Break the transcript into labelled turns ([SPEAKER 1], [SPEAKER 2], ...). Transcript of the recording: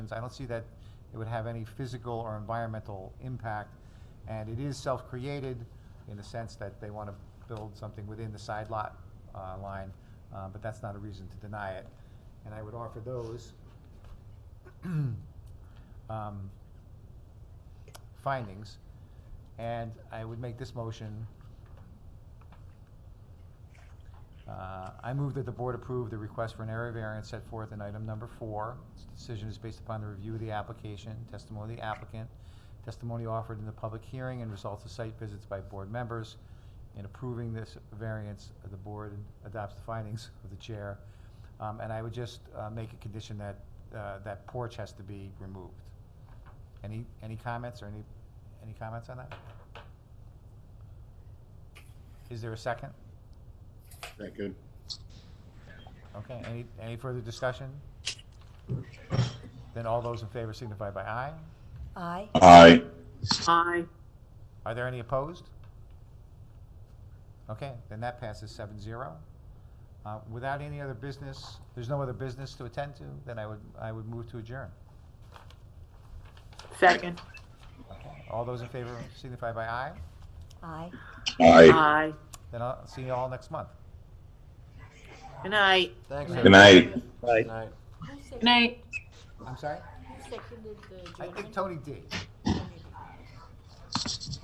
[SPEAKER 1] I don't see that it would have any physical or environmental impact. And it is self-created in the sense that they want to build something within the side lot uh, line, uh, but that's not a reason to deny it. And I would offer those um, findings. And I would make this motion. Uh, I move that the board approve the request for an area variance set forth in item number four. This decision is based upon the review of the application, testimony of the applicant, testimony offered in the public hearing, and results of site visits by board members. In approving this variance, the board adopts the findings of the chair. Um, And I would just uh, make a condition that, uh, that porch has to be removed. Any, any comments or any, any comments on that? Is there a second?
[SPEAKER 2] That good.
[SPEAKER 1] Okay, any, any further discussion? Then all those in favor signify by aye.
[SPEAKER 3] Aye.
[SPEAKER 2] Aye.
[SPEAKER 4] Aye.
[SPEAKER 1] Are there any opposed? Okay, then that passes seven zero. Uh, without any other business, there's no other business to attend to, then I would, I would move to adjourn.
[SPEAKER 4] Second.
[SPEAKER 1] Okay, All those in favor signify by aye,
[SPEAKER 3] Aye.
[SPEAKER 2] Aye.
[SPEAKER 4] Aye.
[SPEAKER 1] then I'll see you all next month.
[SPEAKER 4] Good night.
[SPEAKER 5] Thanks.
[SPEAKER 2] Good night.
[SPEAKER 5] Good night.
[SPEAKER 3] Who
[SPEAKER 4] Good night.
[SPEAKER 1] I'm sorry?
[SPEAKER 3] seconded the
[SPEAKER 1] I think Tony did.